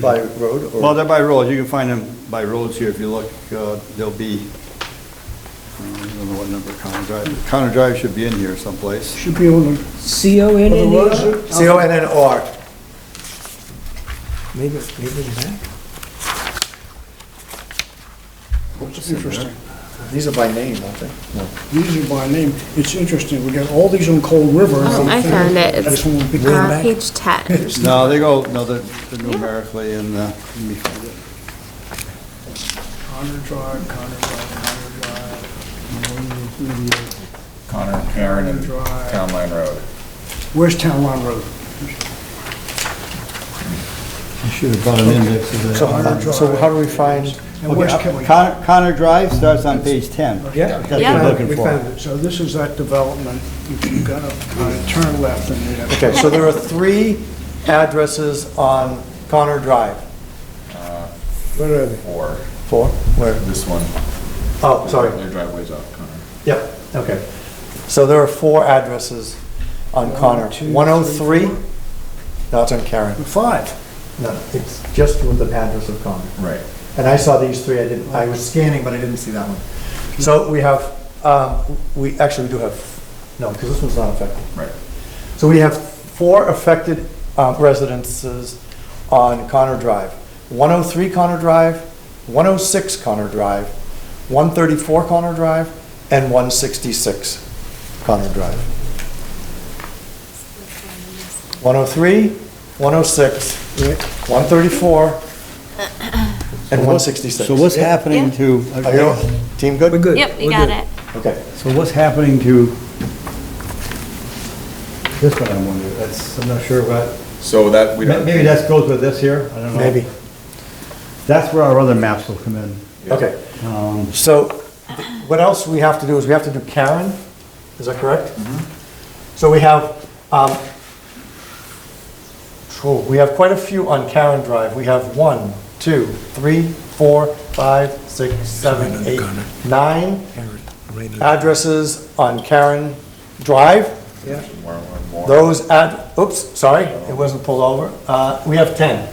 by road Well, or, they're by roads, you can find them by roads here, if you look, uh, they'll be, uh, I don't know what number Connor Drive, Connor Drive should be in here someplace. Should be on the, C-O-N-N-E-R? C-O-N-N-R. Maybe, maybe in the back. it's interesting. These are by name, aren't they? These are by name. It's interesting. We got all these on Cold River. Oh, I found it. That's It's one big- Way on back. page 10. No, they go, no, they're they're numerically in, uh, let me find it. Connor Drive, Connor Drive, Connor Drive. Connor, Aaron, and Town Line Road. Where's Town Line Road? You should have brought an index of So, that. uh, so how do we find, And uh, where's Kelly? Connor, Connor Drive starts on page 10. yeah, That's what Yeah. you're looking we for. found it. So this is that development. If you got to kind of turn left and you have. Okay, so there are three addresses on Connor Drive. Where are they? Or Four, where? this one. Oh, sorry, Their driveway's off Connor. yep, okay. So there are four addresses on Connor. two, three, 103, no, it's on Karen. Five. No, it's just with the address of Connor. Right. And I saw these three, I didn't, I was scanning, but I didn't see that one. So we have, um, we, actually, we do have, no, because this one's not affected. Right. So we have four affected uh, residences on Connor Drive. 103 Connor Drive, 106 Connor Drive, 134 Connor Drive, and 166 Connor Drive. 103, 106, 134, and 166. So what's happening Yeah. to, Are you, team good? We're good. Yep, you got it. Okay. so what's happening to, This one I'm wondering, that's, I'm not sure about, So that, we don't. maybe that goes with this here, I don't know. Maybe. That's where our other maps will come in. Okay. Um, So th- what else we have to do is we have to do Karen, is that correct? So we have, um, oh, we have quite a few on Karen Drive. We have one, two, three, four, five, six, seven, eight, nine Right in- addresses on Karen Drive. More, more, more. Those ad, oops, sorry, it wasn't pulled over. Uh, We have 10.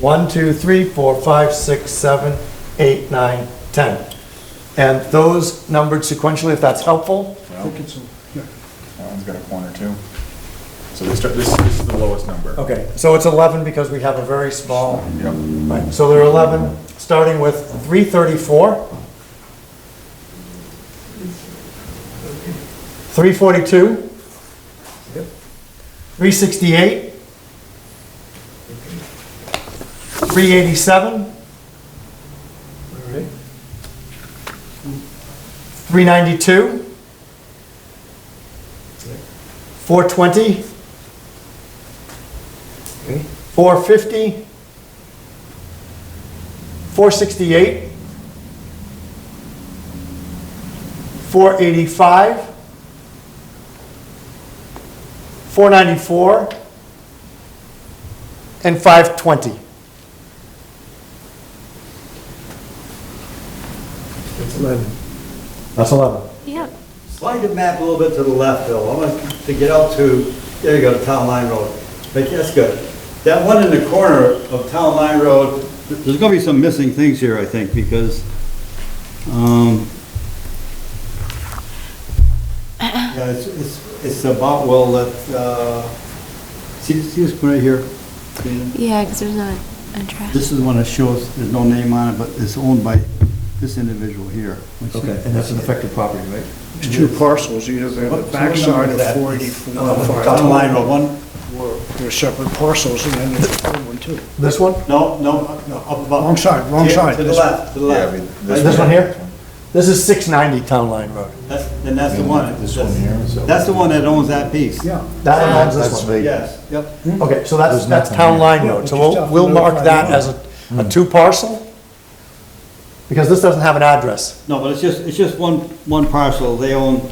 One, two, three, four, five, six, seven, eight, nine, 10. And those numbered sequentially, if that's helpful. I think it's, a- yeah. That one's got a corner too. So this, this this is the lowest number. Okay, so it's 11 because we have a very small, Yep. Oh, right, so there are 11, starting with 334. 342. 368. 387. 392. 420. 450, 468, 485, 494, and 520. It's 11. That's 11. Yep. slide the map a little bit to the left, Bill, I want to get out to, there you go, to Town Line Road. But that's good. That one in the corner of Town Line Road, there's gonna be some missing things here, I think, because, um, yeah, it's, it's, it's about, well, that, uh, see, see this one right here? Dana? Yeah, because there's not a trash. This is the one that shows, there's no name on it, but it's owned by this individual here. Okay, and that's an affected property, right? It's two parcels. You have the What- backside so what number is of that? 484 Uh, and Town Line 520. Road, one, They're separate parcels and then there's a third one too. This one? No, no, no, up above. Wrong side, wrong Yeah, side. To the left, to the Yeah, I left. mean, This one here? This is 690 Town Line Road. That's, then that's the one. This one here, so- That's the one that owns that piece. Yeah. That one owns this one. Yes, yep. Okay, so that's, that's Town Line Road, so Yeah, we'll, we we'll just mark have to that notify as a, a Hmm. two parcel? Because this doesn't have an address. No, but it's just, it's just one, one parcel, they own,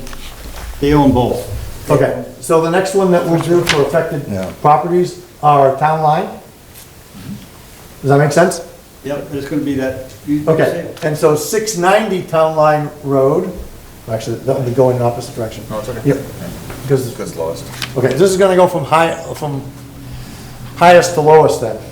they own both. Okay, so the next one that we'll do for affected properties are Town Line? Does that make sense? Yep, it's gonna be that. you- you Okay, and so six ninety Town Line Road, actually, that would be going in opposite direction. No, it's okay. Yep, because, This lowest. okay, this is gonna go from high, from highest to lowest then.